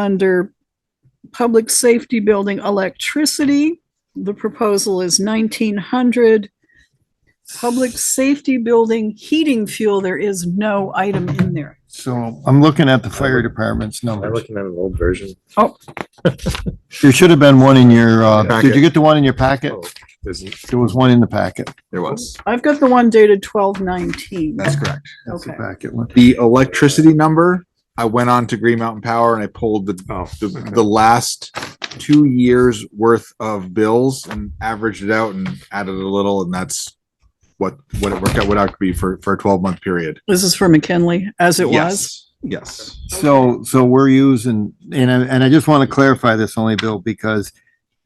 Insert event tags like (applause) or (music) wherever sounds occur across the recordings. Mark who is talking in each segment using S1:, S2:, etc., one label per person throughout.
S1: Under Public Safety Building Electricity, the proposal is nineteen hundred. Public Safety Building Heating Fuel, there is no item in there.
S2: So I'm looking at the fire department's
S3: I'm
S2: numbers.
S3: looking at an old version.
S2: There should have been one in your, uh,
S4: Packet.
S2: did you get the one in your packet?
S3: Oh, isn't-
S2: There was one in the packet.
S4: There was.
S1: I've got the one dated twelve nineteen.
S4: That's correct.
S2: That's the
S1: Okay.
S2: packet one.
S4: The electricity number, I went on to Green Mountain Power and I pulled the,
S3: oh,
S4: the, the last two years worth of bills and averaged it out and added a little and that's what, what it worked out, would out to be for, for a twelve month period.
S1: This is for McKinley, as it was.
S4: Yes. Yes.
S2: So, so we're using, and I, and I just want to clarify this only, Bill, because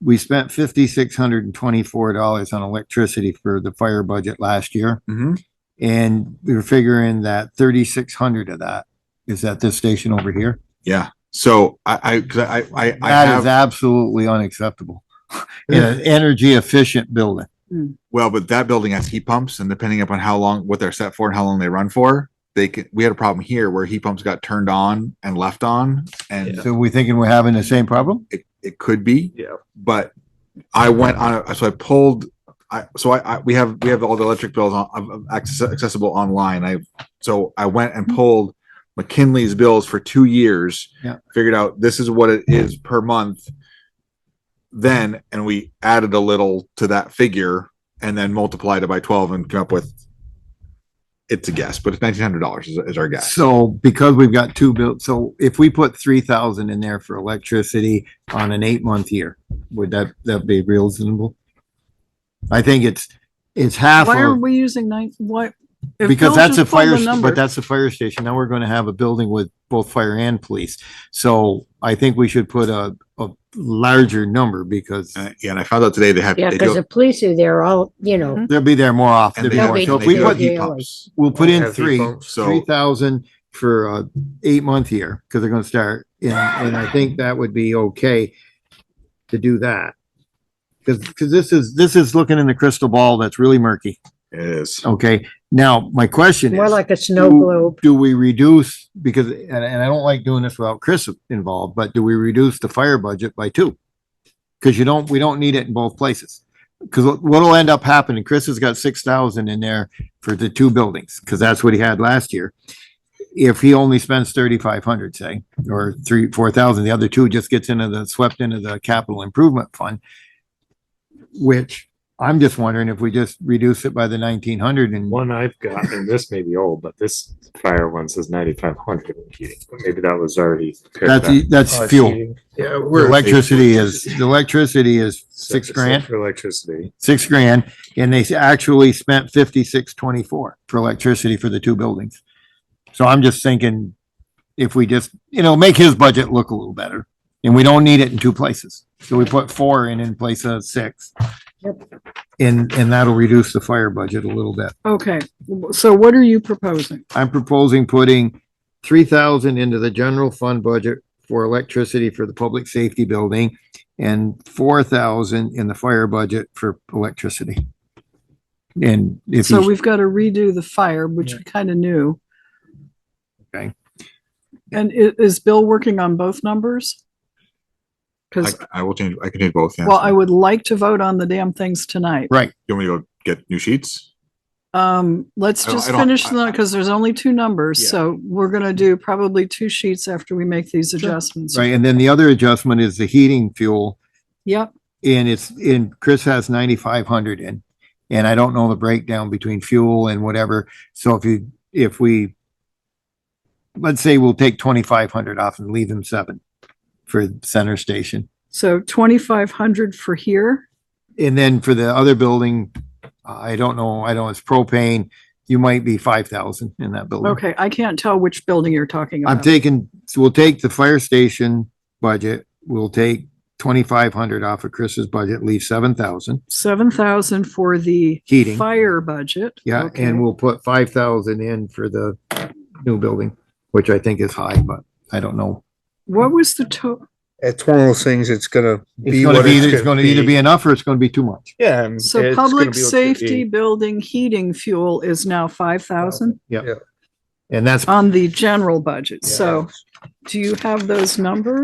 S2: we spent fifty-six hundred and twenty-four dollars on electricity for the fire budget last year.
S4: hmm
S2: And we were figuring that thirty-six hundred of that is at this station over here.
S4: Yeah. So I, I, 'cause I, I, I
S2: That is
S4: have,
S2: absolutely unacceptable. (laughs) In an energy efficient building.
S4: well, but that building has heat pumps and depending upon how long, what they're set for and how long they run for, they could, we had a problem here where heat pumps got turned on and left on and
S2: So we thinking we're having the same problem?
S4: it, it could be.
S3: Yeah.
S4: But I went on, a- so I pulled, I, so I, I, we have, we have all the electric bills on, of- of access- accessible online. I, so I went and pulled McKinley's bills for two years.
S2: Yeah.
S4: Figured out this is what it is per month. Then, and we added a little to that figure and then multiplied it by twelve and came up with it's a guess, but it's nineteen hundred dollars is, is our guess.
S2: So because we've got two built, so if we put three thousand in there for electricity on an eight month year, would that, that be reasonable? I think it's, it's half
S1: Why are
S2: of,
S1: we using nine, what? if
S2: because
S1: Bill
S2: that's a
S1: just pulled the
S2: fire, st-
S1: number-
S2: but that's a fire station. Now we're gonna have a building with both fire and police. So I think we should put a, a larger number because
S4: And, yeah, and I found out today they have.
S5: Yeah,
S4: they do
S5: because the police are there all, you know,
S2: they'll be there more often.
S4: And they
S2: They'll be more- So if
S4: have- they
S2: we
S4: do have
S2: put,
S4: heat pumps.
S2: we'll put in
S3: Have heat
S2: three,
S3: pumps.
S4: So-
S2: three thousand for a eight month year, because they're gonna start, and, and I think that would be okay to do that. Cause, 'cause this is, this is looking in the crystal ball that's really murky,
S4: It is.
S2: okay? Now, my question
S5: more
S2: Mm-hmm. is,
S5: like a snow globe.
S2: do we reduce, because, and, and I don't like doing this without Chris involved, but do we reduce the fire budget by two? Cause you don't, we don't need it in both places. Cause what- what'll end up happening, Chris has got six thousand in there for the two buildings, cause that's what he had last year. If he only spends thirty-five hundred, say, or three, four thousand, the other two just gets into the, swept into the capital improvement fund. Which I'm just wondering if we just reduce it by the nineteen hundred and,
S3: One I've got, and this may be old, but this fire one says ninety-five hundred heating. Maybe that was already. paired back.
S2: that's, e,
S3: Oh,
S2: that's
S3: it's
S2: fuel.
S3: heating. Yeah,
S2: The electricity is, the electricity is six
S3: Except
S2: grand,
S3: For electricity.
S2: six grand, and they actually spent fifty-six twenty-four for electricity for the two buildings. So I'm just thinking, if we just, you know, make his budget look a little better, and we don't need it in two places. So we put four in in place of six. And, and that'll reduce the fire budget a little bit.
S1: Okay, so what are you proposing?
S2: I'm proposing putting three thousand into the general fund budget for electricity for the public safety building and four thousand in the fire budget for electricity. And if
S1: So
S2: you,
S1: we've got to redo the fire, which we kind of knew.
S2: Okay.
S1: And i- is Bill working on both numbers?
S4: I,
S1: Because,
S4: I will change, I can change both. yeah.
S1: well, I would like to vote on the damn things tonight.
S2: right,
S4: You want me to go get new sheets?
S1: Um, let's
S2: Oh,
S4: I don't-
S1: just
S4: I don't-
S1: finish
S4: I-
S1: the, because there's only two numbers,
S4: Yeah.
S1: so we're gonna do probably two sheets after we make these adjustments.
S2: right. And then the other adjustment is the heating fuel
S1: Yep,
S2: and it's in, Chris has ninety-five hundred in. And I don't know the breakdown between fuel and whatever. So if you, if we, let's say we'll take twenty-five hundred off and leave him seven for center station.
S1: so twenty-five hundred for here.
S2: And then for the other building, I don't know, I don't, it's propane, you might be five thousand in that building.
S1: Okay, I can't tell which building you're talking
S2: I'm
S1: about.
S2: taking, so we'll take the fire station budget, we'll take twenty-five hundred off of Chris's budget, leave seven thousand.
S1: Seven thousand for the
S2: Heating.
S1: fire budget.
S2: Yeah,
S1: Okay.
S2: and we'll put five thousand in for the new building, which I think is high, but I don't know.
S1: What was the to,
S6: it's one of those things, it's gonna
S2: It's
S6: be
S2: gonna
S6: what
S2: be,
S6: it's
S2: it's gonna either be enough or it's gonna be too much.
S3: Yeah. and
S1: so
S3: it's gonna be
S1: public
S3: what you
S1: safety
S3: eat.
S1: building heating fuel is now five thousand
S2: And that's
S1: on the general budget. So do you have those numbers?